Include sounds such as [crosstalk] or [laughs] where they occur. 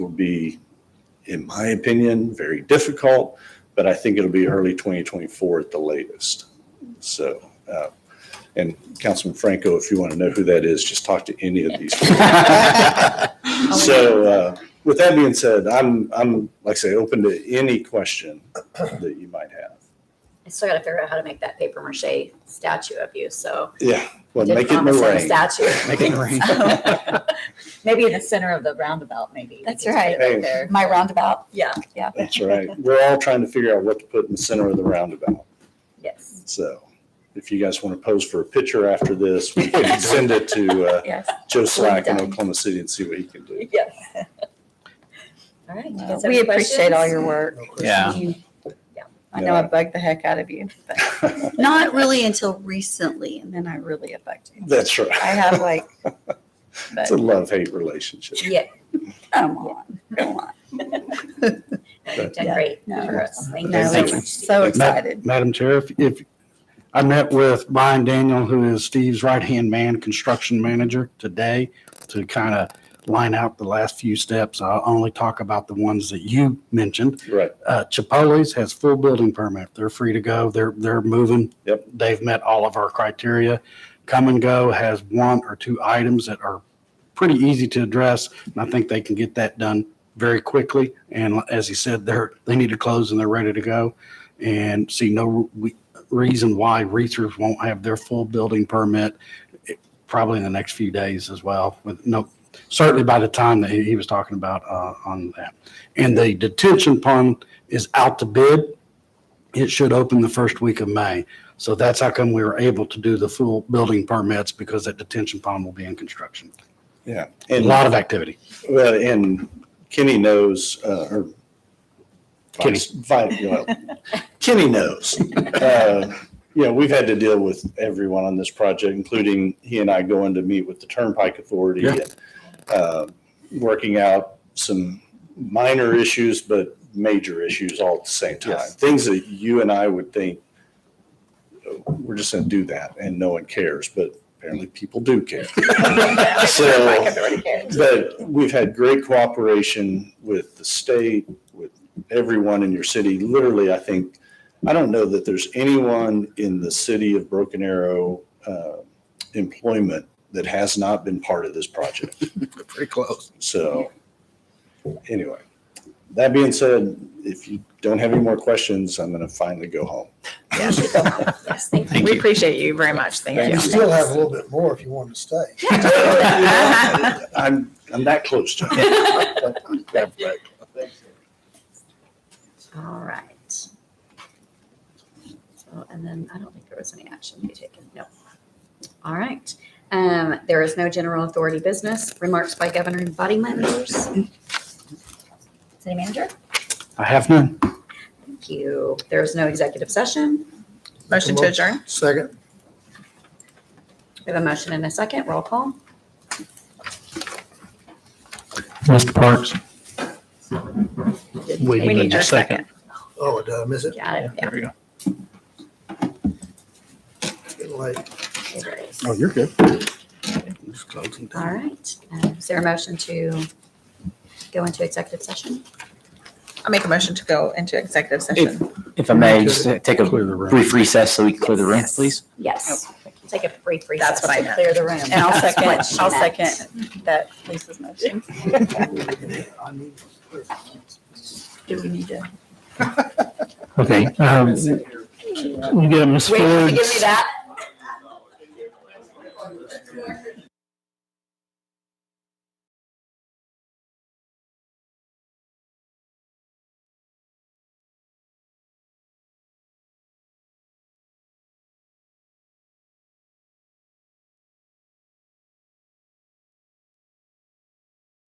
would be, in my opinion, very difficult, but I think it'll be early 2024 at the latest. So, uh, and Councilman Franco, if you want to know who that is, just talk to any of these. Oh, Oh, people. So uh, with that being said, I'm, I'm, like I say, open to any question that you might have. I still gotta figure out how to make that paper mache statue of you, so. Yeah, well, Did make it in the promise him a rain. [laughs] [laughs] Statue. Make it rain. [laughs] Maybe in the center of the roundabout, maybe. That's You could put it right. up there. My roundabout, Yeah, yeah. That's right. We're all trying to figure out what to put in the center of the roundabout. yes. So if you guys want to pose for a picture after this, we can send it to uh, Yes. Joe Slack in Oklahoma City and see what he can do. Yes. [laughs] All right. you guys have any We appreciate questions? all your work. Yeah. I know I bugged the heck out of you, but not really until recently, and then I really affected you. That's I right. have like, It's but a love-hate relationship. Yeah, come on, come on. you've done Yeah. great No. for us. Thank you No, so it's much. so Steve. exciting. excited. Ma- Madam Chair, if- if, I met with Brian Daniel, who is Steve's right-hand man, construction manager, today to kind of line out the last few steps. I'll only talk about the ones that you mentioned. Right. Uh, Chipotle's has full building permit. They're free to go. They're, they're moving. Yep. They've met all of our criteria. Come and Go has one or two items that are pretty easy to address, and I think they can get that done very quickly. And as he said, they're, they need to close and they're ready to go. And see no re- reason why Reethers won't have their full building permit eh, probably in the next few days as well, with no, certainly by the time that he he was talking about uh, on that. And the detention pond is out to bid. It should open the first week of May. So that's how come we were able to do the full building permits because that detention pond will be in construction Yeah. a And, lot of activity. well, and Kenny knows, uh, or. Kenny. Vice- well, Kenny knows. Uh, You know, we've had to deal with everyone on this project, including he and I going to meet with the Turnpike Authority. Yeah. and, uh, Working out some minor issues, but major issues all at the same time. Yes. Things that you and I would think, "Oh, we're just going to do that and no one cares, but apparently people do [laughs] care. So, but we've had great cooperation with the state, with everyone in your city. Literally, I think, I don't know that there's anyone in the city of Broken Arrow uh, employment that has not been part of this project. Pretty close. So anyway, that being said, if you don't have any more questions, I'm going to finally go home. Yes, thank you. Thank We you. appreciate you very much. Thank Thank you. You still have a little bit more if you wanted to stay. [laughs] I'm, I'm that close to it. All right. So, and then I don't think there was any action to be taken. No. All right. Um, there is no general authority business. Remarks by governor and body members. City manager? I have none. Thank you. There is no executive session. Motion to adjourn? Second, We have a motion and a second. Roll call. Mr. Parks? Did- Wait, We need your second. oh, it uh, miss it, Got it. Yeah. It's getting late. it is. Oh, you're good. All right. Um, Is there a motion to go into executive session? I make a motion to go into executive session. If I may, just take a brief recess so we can clear the room, Yes. please. Yes. Take a brief recess That's what I to meant. clear the room. And I'll That's second, what she I'll meant. second that Lisa's motion. [laughs] I need to clear. Do we need to? Okay, um, we get Ms. Wait, you Ford, give me that?